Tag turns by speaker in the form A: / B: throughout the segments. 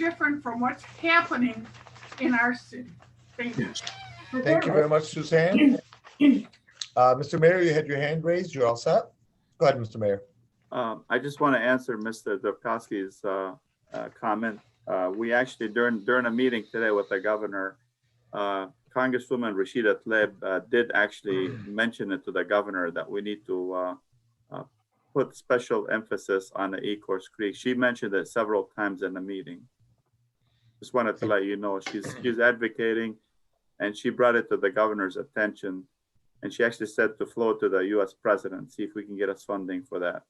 A: different from what's happening in our city. Thank you.
B: Thank you very much, Suzanne. Uh, Mr. Mayor, you had your hand raised. You're all set? Go ahead, Mr. Mayor.
C: Um, I just want to answer Mr. Dubkowski's uh, uh, comment. Uh, We actually during, during a meeting today with the governor, uh, Congresswoman Rashida Tlaib uh, did actually mention it to the governor that we need to uh, uh, put special emphasis on the Ecorse Creek. She mentioned it several times in the meeting. Just wanted to let you know, she's, she's advocating and she brought it to the governor's attention. And she actually said to float to the US president, see if we can get us funding for that.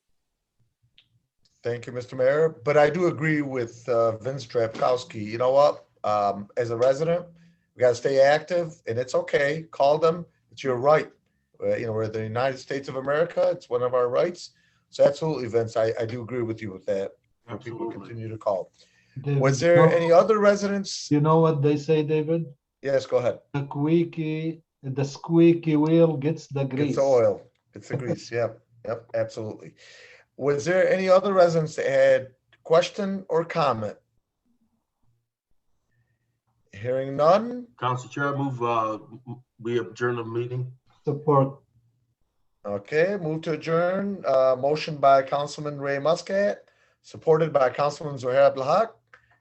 B: Thank you, Mr. Mayor. But I do agree with uh, Vince Drapkowski. You know what? Um, As a resident, we got to stay active and it's okay. Call them. It's your right. Uh, You know, we're the United States of America. It's one of our rights. So absolutely, Vince, I, I do agree with you with that. People
D: Absolutely.
B: continue to call.
E: David,
B: Was there
E: no-
B: any other residents?
E: You know what they say, David?
B: Yes, go ahead.
E: The squeaky, the squeaky wheel gets the
B: It's
E: grease.
B: the oil. It's the grease. Yep. Yep. Absolutely. Was there any other residents that had question or comment? Hearing none.
D: Council Chair, I move, uh, m- we adjourn the meeting.
E: Support.
B: Okay, move to adjourn. Uh, motion by Councilman Ray Muscat, supported by Councilman Zohair Abdalhak.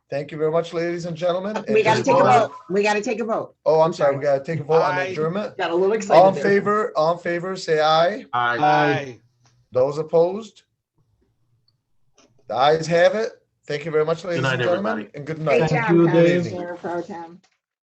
B: Thank you very much, ladies and gentlemen.
F: We gotta
B: And-
F: take a vote. We gotta take a vote.
B: Oh, I'm sorry. We gotta take a vote on the
G: Aye.
B: adjournment.
F: Got a little
B: All in
F: excited there.
B: favor, all in favor, say aye.
D: Aye.
G: Aye.
B: Those opposed? The ayes have it. Thank you very much, ladies and
D: night,
B: gentlemen,
D: everybody.
B: and good
F: Great
B: night.
E: Thank
F: job,
E: you,
F: Council
B: Dave.
F: Chair Pro Tem.